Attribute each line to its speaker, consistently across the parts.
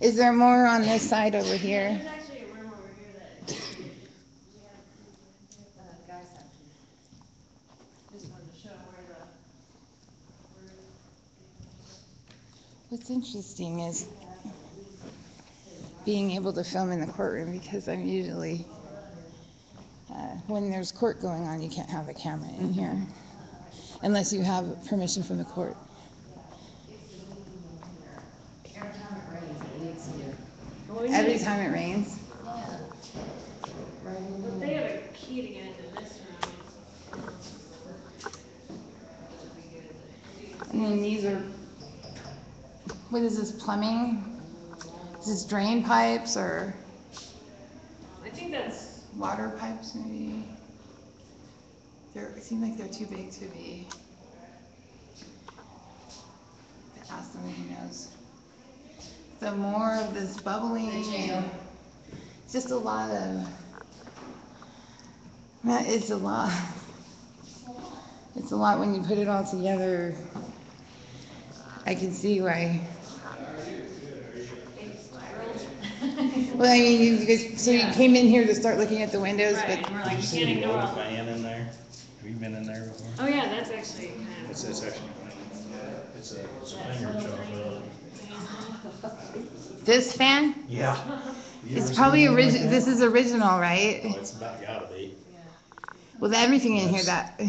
Speaker 1: Is there more on this side over here?
Speaker 2: There's actually a room over here that. Uh, guys have to. Just wanted to show where the, where
Speaker 1: What's interesting is
Speaker 2: we have at least
Speaker 1: being able to film in the courtroom because I'm usually, uh, when there's court going on, you can't have a camera in here unless you have permission from the court.
Speaker 2: Every time it rains, it leaks here. Oh,
Speaker 1: Every time it rains,
Speaker 2: But they have a key to get into this room.
Speaker 1: I mean, these are, what is this, plumbing? Is this drain pipes or
Speaker 2: I think that's,
Speaker 1: water pipes maybe? They're, seem like they're too big to be. Ask them if he knows. So more of this bubbling and just a lot of, that is a lot. It's a lot when you put it all together. I can see why.
Speaker 2: it's spiraled.
Speaker 1: Well, I mean, you guys, so you
Speaker 2: Yeah.
Speaker 1: came in here to start looking at the windows,
Speaker 2: Right,
Speaker 1: but
Speaker 2: and we're
Speaker 3: Did
Speaker 2: like,
Speaker 3: you
Speaker 2: you
Speaker 3: see
Speaker 2: can't
Speaker 3: the
Speaker 2: ignore
Speaker 3: old
Speaker 2: all.
Speaker 3: man in there? Have you been in there before?
Speaker 2: Oh, yeah, that's actually kind of.
Speaker 3: It's, it's actually, it's a, it's a finger job.
Speaker 1: this fan,
Speaker 3: Yeah.
Speaker 1: it's probably original, this is original, right?
Speaker 3: Oh, it's about gotta be.
Speaker 1: With everything in here that,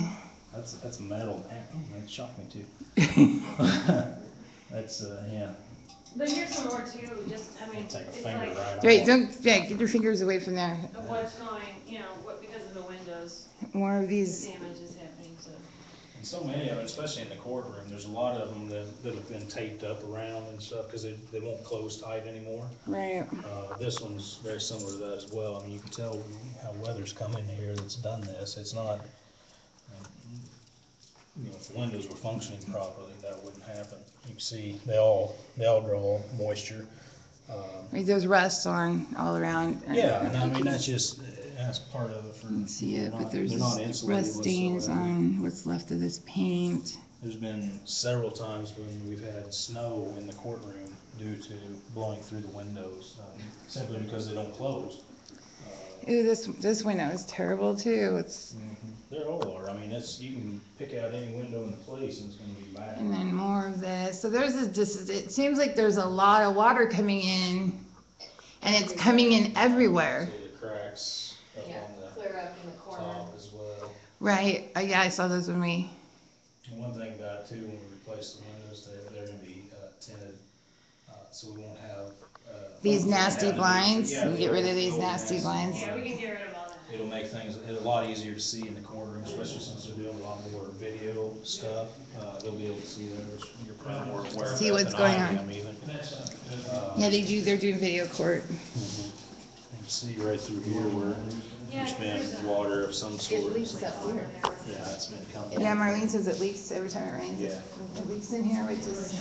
Speaker 3: That's, that's metal. Oh, that shocked me too. That's, uh, yeah,
Speaker 2: But here's some more too, just, I mean, it's
Speaker 3: take a
Speaker 2: like,
Speaker 3: finger right off.
Speaker 1: right, don't, yeah, get your fingers away from there.
Speaker 2: of what's going, you know, what, because of the windows,
Speaker 1: More of these,
Speaker 2: damage is happening, so.
Speaker 3: And so many of them, especially in the courtroom, there's a lot of them that, that have been taped up around and stuff, cause they, they won't close tight anymore.
Speaker 1: right,
Speaker 3: Uh, this one's very similar to that as well. I mean, you can tell how weather's come in here that's done this. It's not, um, you know, if the windows were functioning properly, that wouldn't happen. You can see they all, they all draw moisture. Um,
Speaker 1: Right, there's rust on all around.
Speaker 3: Yeah, and I mean, that's just, that's part of it for.
Speaker 1: You can see it,
Speaker 3: they're
Speaker 1: but
Speaker 3: not-
Speaker 1: there's
Speaker 3: they're not
Speaker 1: this
Speaker 3: insulated
Speaker 1: rust stains
Speaker 3: whatsoever.
Speaker 1: on what's left of this paint.
Speaker 3: There's been several times when we've had snow in the courtroom due to blowing through the windows, um, simply because they don't close. Uh,
Speaker 1: Ooh, this, this window is terrible too, it's,
Speaker 3: There all are, I mean, that's, you can pick out any window in the place and it's gonna be bad.
Speaker 1: and then more of this, so there's this, this, it seems like there's a lot of water coming in, and it's coming in everywhere,
Speaker 3: See the cracks up
Speaker 2: Yeah,
Speaker 3: on
Speaker 2: clear up in the
Speaker 3: the
Speaker 2: corner.
Speaker 3: top as well.
Speaker 1: right? Uh, Yeah, I saw those when we,
Speaker 3: And one thing about it too, when we replace the windows, they're, they're gonna be uh, tinted, uh, so we won't have, uh.
Speaker 1: These nasty
Speaker 3: have to-
Speaker 1: blinds?
Speaker 3: yeah,
Speaker 1: You get rid of
Speaker 3: the
Speaker 1: these
Speaker 3: old
Speaker 1: nasty blinds?
Speaker 2: Yeah, we can get rid of all that.
Speaker 3: It'll make things a lot easier to see in the courtroom, especially since they're doing a lot more video stuff. Uh, they'll be able to see that, which you're probably more aware of
Speaker 1: See
Speaker 3: that
Speaker 1: what's
Speaker 3: than
Speaker 1: going
Speaker 3: I
Speaker 1: on.
Speaker 3: am even. Uh,
Speaker 1: yeah, they do, they're doing video court.
Speaker 3: You can see right through here where
Speaker 2: Yeah,
Speaker 3: there's
Speaker 2: there's
Speaker 3: been
Speaker 2: a-
Speaker 3: water of some sort.
Speaker 1: up
Speaker 2: Over there.
Speaker 3: Yeah, it's been coming.
Speaker 1: Yeah, Marlene says it leaks every time it rains.
Speaker 3: Yeah.
Speaker 1: It leaks in here, which is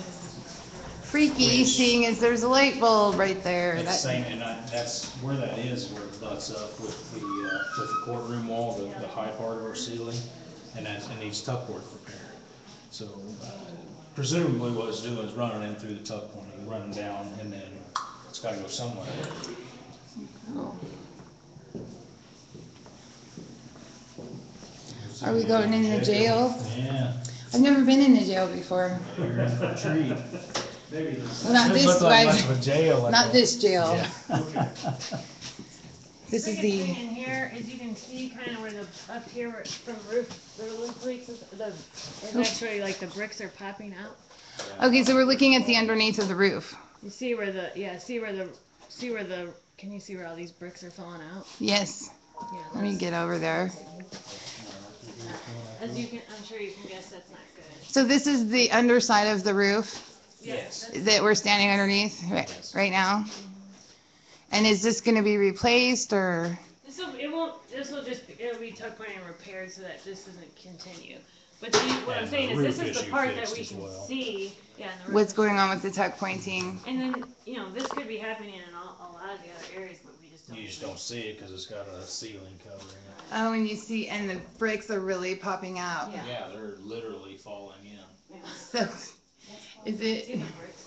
Speaker 1: freaky, seeing as there's a light bulb right there.
Speaker 3: It's the
Speaker 1: That,
Speaker 3: same, and I, that's where that is, where it butts up with the, uh, with the courtroom wall, the, the high part of our ceiling, and that, it needs tuck work repair. So uh, presumably what it's doing is running in through the tuck point, and running down, and then it's gotta go somewhere.
Speaker 1: oh. Are we going in the jail?
Speaker 3: Yeah.
Speaker 1: I've never been in a jail before.
Speaker 3: You're in for a treat.
Speaker 1: Well, not this,
Speaker 3: Much
Speaker 1: one.
Speaker 3: of a jail.
Speaker 1: not this jail. This is
Speaker 2: Biggest
Speaker 1: the,
Speaker 2: thing in here is you can see kind of where the, up here where- from roof, the roof leaks, is- the, is
Speaker 1: Oh.
Speaker 2: actually like the bricks are popping out.
Speaker 1: okay, so we're looking at the underneath of the roof.
Speaker 2: You see where the, yeah, see where the, see where the, can you see where all these bricks are falling out?
Speaker 1: Yes,
Speaker 2: Yeah,
Speaker 1: let me
Speaker 2: that's-
Speaker 1: get over there.
Speaker 2: As you can, I'm sure you can guess that's not good.
Speaker 1: So this is the underside of the roof
Speaker 3: Yes.
Speaker 2: that's-
Speaker 1: that we're standing underneath right, right now. And is this gonna be replaced or?
Speaker 2: This'll, it won't, this'll just, it'll be tuck point and repaired so that this doesn't continue. But the, what I'm
Speaker 3: And
Speaker 2: saying
Speaker 3: the
Speaker 2: is this
Speaker 3: roof
Speaker 2: is the
Speaker 3: issue
Speaker 2: part that
Speaker 3: fixed
Speaker 2: we
Speaker 3: as
Speaker 2: can
Speaker 3: well.
Speaker 2: see, yeah, and the roof.
Speaker 1: what's going on with the tuck pointing.
Speaker 2: And then, you know, this could be happening in all, a lot of the other areas, but we just don't.
Speaker 3: You just don't see it, cause it's got a ceiling covering it.
Speaker 1: Oh, and you see, and the bricks are really popping out.
Speaker 2: Yeah.
Speaker 3: Yeah, they're literally falling in.
Speaker 2: Yeah.
Speaker 1: So, is
Speaker 2: See
Speaker 1: it?
Speaker 2: the bricks